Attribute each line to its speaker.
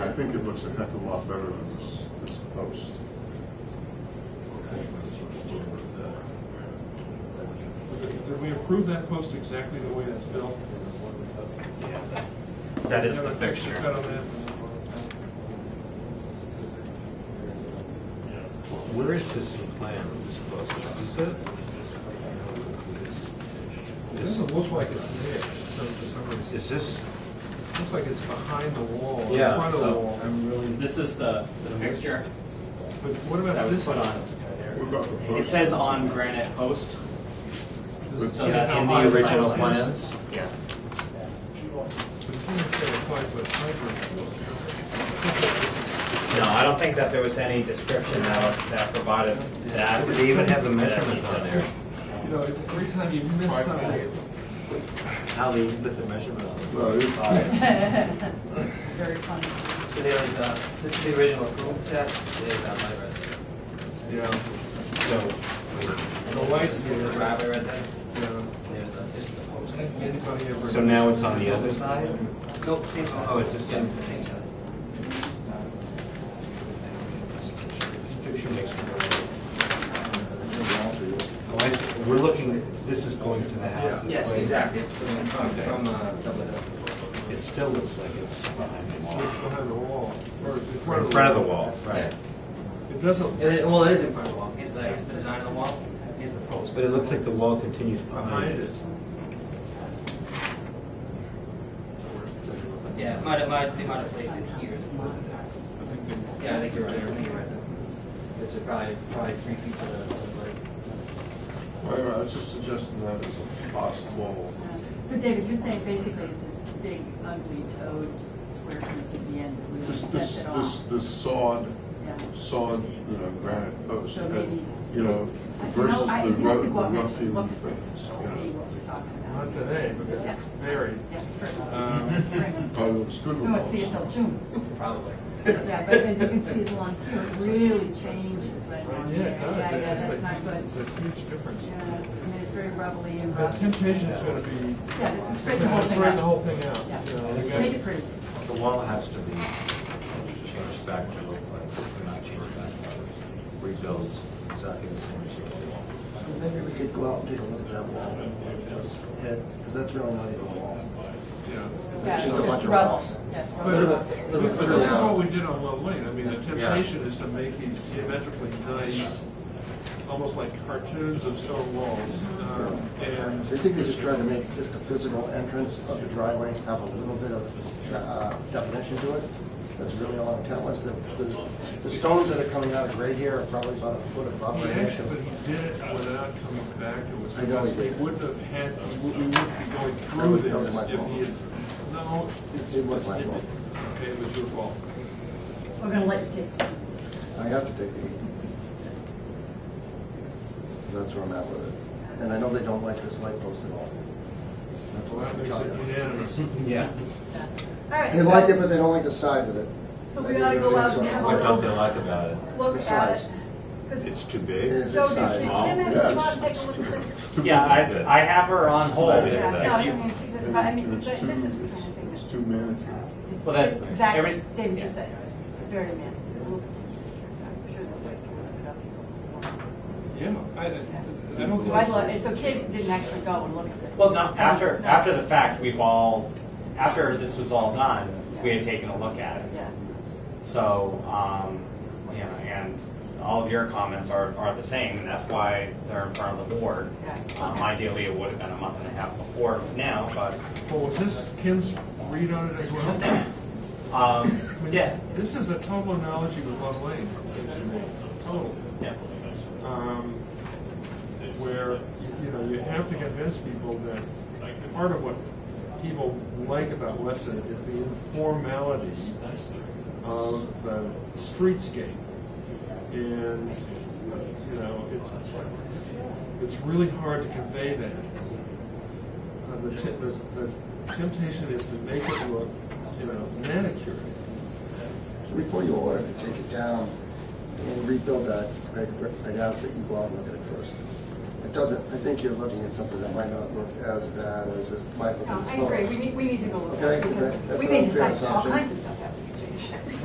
Speaker 1: think it looks a heck of a lot better than this, this post.
Speaker 2: Did we approve that post exactly the way that's built?
Speaker 3: That is the
Speaker 2: Have a picture cut
Speaker 3: fixture.
Speaker 2: on that?
Speaker 4: Where is this in plan, this post? Is it?
Speaker 2: It doesn't look like it's there, so for some reason,
Speaker 4: Is this,
Speaker 2: it looks like it's behind the wall, in
Speaker 4: Yeah,
Speaker 2: front of the
Speaker 3: so-
Speaker 2: wall.
Speaker 3: This is the, the fixture
Speaker 2: But what
Speaker 3: that
Speaker 2: about this?
Speaker 3: was put on.
Speaker 1: What about the post?
Speaker 3: It says on granite post.
Speaker 2: Does it
Speaker 3: So
Speaker 2: say
Speaker 3: that's
Speaker 2: how
Speaker 3: in
Speaker 2: high
Speaker 3: the
Speaker 2: the
Speaker 3: original
Speaker 2: post is?
Speaker 3: plans? Yeah.
Speaker 2: But it doesn't say a five-foot height limit. It's
Speaker 3: No, I don't think that there was any description that, that provided that.
Speaker 4: they even have the measurement on there.
Speaker 2: just- You know, if- every time you miss something, it's,
Speaker 4: How they even put the measurement on it?
Speaker 1: Well, it's-
Speaker 5: Very funny.
Speaker 6: So they have, uh, this is the original approval set, they have uh, my residence.
Speaker 2: yeah,
Speaker 4: So,
Speaker 2: the lights
Speaker 6: There's
Speaker 2: near
Speaker 6: the
Speaker 2: the
Speaker 6: driveway right there,
Speaker 2: Yeah.
Speaker 6: there's the, this is the post.
Speaker 2: Anybody ever?
Speaker 4: so now it's on the other side?
Speaker 6: Nope, same side.
Speaker 4: Oh, it's the same.
Speaker 6: Yeah, Same side.
Speaker 4: This picture makes me go. Oh, I see. We're looking, this is going to the house. this
Speaker 6: Yes,
Speaker 4: way.
Speaker 6: exactly, from,
Speaker 4: Okay.
Speaker 6: from, uh, Double Hill.
Speaker 4: It still looks like it's behind the wall.
Speaker 2: Behind the wall, or in
Speaker 4: We're
Speaker 2: front
Speaker 4: in
Speaker 2: of the wall.
Speaker 4: front of the wall, right.
Speaker 2: It doesn't,
Speaker 6: Is it- well, it is in front of the wall, here's the, here's the design of the wall, here's the post.
Speaker 4: But it looks like the wall continues behind
Speaker 2: Behind
Speaker 4: it.
Speaker 2: it.
Speaker 6: Yeah, it might have, might, they might have placed it here as opposed to there. Yeah, I think you're right, I think you're right. It's probably, probably three feet to the, to the right.
Speaker 1: I I was just suggesting that as a possible,
Speaker 5: So David, you're saying basically it's this big ugly toad square piece at the end that really
Speaker 1: this,
Speaker 5: sets
Speaker 1: this,
Speaker 5: it
Speaker 1: this,
Speaker 5: off?
Speaker 1: this sawed,
Speaker 5: Yeah.
Speaker 1: sawed, you know, granite post,
Speaker 5: So maybe-
Speaker 1: you know,
Speaker 5: I- no,
Speaker 1: versus
Speaker 5: I-
Speaker 1: the
Speaker 5: you have
Speaker 1: rough,
Speaker 5: to
Speaker 1: the
Speaker 5: go up and
Speaker 1: rough hewn
Speaker 5: look at this
Speaker 1: things.
Speaker 5: and
Speaker 1: you know.
Speaker 5: See what we're talking about.
Speaker 2: not today, because it's buried.
Speaker 5: Yeah, sure.
Speaker 2: Um,
Speaker 5: Spring.
Speaker 1: Probably looks good
Speaker 5: We
Speaker 1: with
Speaker 5: won't see it
Speaker 1: those.
Speaker 5: till June.
Speaker 6: Probably.
Speaker 5: Yeah, but then you can see it's along here, it really changes right
Speaker 2: Well,
Speaker 5: along
Speaker 2: Yeah,
Speaker 5: here.
Speaker 2: it does.
Speaker 5: Yeah,
Speaker 2: It's
Speaker 5: yeah,
Speaker 2: just
Speaker 5: that's not
Speaker 2: like,
Speaker 5: good.
Speaker 2: it's a huge difference.
Speaker 5: Yeah, I mean, it's very rubbly and
Speaker 2: The
Speaker 5: rough.
Speaker 2: temptation is going to be,
Speaker 5: Yeah,
Speaker 2: to
Speaker 5: straighten the whole
Speaker 2: just
Speaker 5: thing
Speaker 2: straighten the
Speaker 5: out.
Speaker 2: whole thing out. you
Speaker 5: Yeah.
Speaker 2: know, you
Speaker 5: Make it
Speaker 2: got-
Speaker 5: pretty.
Speaker 4: The wall has to be changed back to look like, they're not changed back, rebuilds exactly the same shape of the wall.
Speaker 7: Maybe we could go out and take a look at that wall, because that's really not even a wall.
Speaker 2: Yeah.
Speaker 5: Yeah,
Speaker 7: just
Speaker 5: it's
Speaker 7: a bunch
Speaker 5: just
Speaker 7: of
Speaker 5: rubble.
Speaker 7: rocks.
Speaker 5: Yeah, it's
Speaker 2: But
Speaker 5: rubble.
Speaker 2: but- but this is what we did on Love Lane. I mean, the temptation is to make these geometrically nice, almost like cartoons of stone walls.
Speaker 5: Mm-hmm.
Speaker 2: um, And
Speaker 7: I think they're just trying to make just the physical entrance of the driveway have a little bit of uh, definition to it. That's really all I'm telling us. The, the- the stones that are coming out of grade here are probably about a foot above
Speaker 2: He
Speaker 7: grade.
Speaker 2: actually, but he did it without coming back to us,
Speaker 7: I know
Speaker 2: because
Speaker 7: he
Speaker 2: we
Speaker 7: did.
Speaker 2: wouldn't have had, we wouldn't be going through
Speaker 7: That was-
Speaker 2: this
Speaker 7: that was my
Speaker 2: if he had, no.
Speaker 7: It was my fault.
Speaker 2: Okay, it was your fault.
Speaker 5: We're going to let you take it.
Speaker 7: I have to take eight. That's where I'm at with it. And I know they don't like this light post at all. That's
Speaker 2: Well,
Speaker 7: what
Speaker 2: that
Speaker 7: I'm
Speaker 2: makes
Speaker 7: telling
Speaker 2: it
Speaker 7: you.
Speaker 2: unanimous.
Speaker 4: Yeah.
Speaker 5: All right.
Speaker 7: They
Speaker 5: so-
Speaker 7: like it, but they don't like the size of it.
Speaker 5: So we ought to go out and have a
Speaker 4: What
Speaker 5: look.
Speaker 4: don't they like about it?
Speaker 5: look
Speaker 7: The
Speaker 5: at
Speaker 7: size.
Speaker 5: it. 'Cause-
Speaker 4: It's too big.
Speaker 7: Is
Speaker 5: So
Speaker 7: it
Speaker 5: does
Speaker 7: size?
Speaker 5: Kim
Speaker 4: small?
Speaker 5: have
Speaker 1: Yeah,
Speaker 5: to come out and
Speaker 1: it's-
Speaker 5: take a look at this?
Speaker 1: Too
Speaker 3: Yeah,
Speaker 4: Good.
Speaker 3: I, I have her on hold.
Speaker 4: Yeah,
Speaker 5: Yeah, no, I
Speaker 3: If
Speaker 5: don't
Speaker 3: you,
Speaker 5: think she
Speaker 1: And
Speaker 5: did, but I mean,
Speaker 1: it's
Speaker 5: this is
Speaker 1: too-
Speaker 5: the kind of
Speaker 1: it's-
Speaker 5: thing
Speaker 1: It's too manicured.
Speaker 3: well, that,
Speaker 5: that. Exactly,
Speaker 3: every,
Speaker 5: David just said, it. it's very man, a little particular. I'm sure this way towards it up.
Speaker 2: Yeah, I, I I don't
Speaker 5: So I'd love,
Speaker 2: think,
Speaker 5: it's okay if you didn't actually go and look at this.
Speaker 3: well, no,
Speaker 5: It's
Speaker 3: after,
Speaker 5: not-
Speaker 3: after the fact, we've all, after this was all done, we had taken a look at it.
Speaker 5: Yeah,
Speaker 3: So, um, you know, and all of your comments are, are the same, and that's why they're in front of the board.
Speaker 5: Yeah.
Speaker 3: Um, ideally, it would have been a month and a half before now, but,
Speaker 2: well, was this Kim's read on it as well?
Speaker 3: um,
Speaker 2: I mean,
Speaker 3: yeah,
Speaker 2: This is a total analogy with Love Lane, it seems to me, total.
Speaker 3: yeah.
Speaker 2: um, where, you- you know, you have to convince people that part of what people like about Weston is the informality of the streetscape. And, you know, it's, it's really hard to convey that. Uh, The te- the- the temptation is to make it look, you know, manicured.
Speaker 7: Before you order to take it down and rebuild that, I'd- I'd ask that you go out and look at it first. It doesn't, I think you're looking at something that might not look as bad as it might look
Speaker 5: No,
Speaker 7: on this
Speaker 5: I
Speaker 7: photo.
Speaker 5: agree, we need, we need to go look at it,
Speaker 7: Okay, that-
Speaker 5: because
Speaker 7: that's
Speaker 5: we
Speaker 7: an
Speaker 5: may decide
Speaker 7: unfair
Speaker 5: all
Speaker 7: assumption.
Speaker 5: kinds of stuff that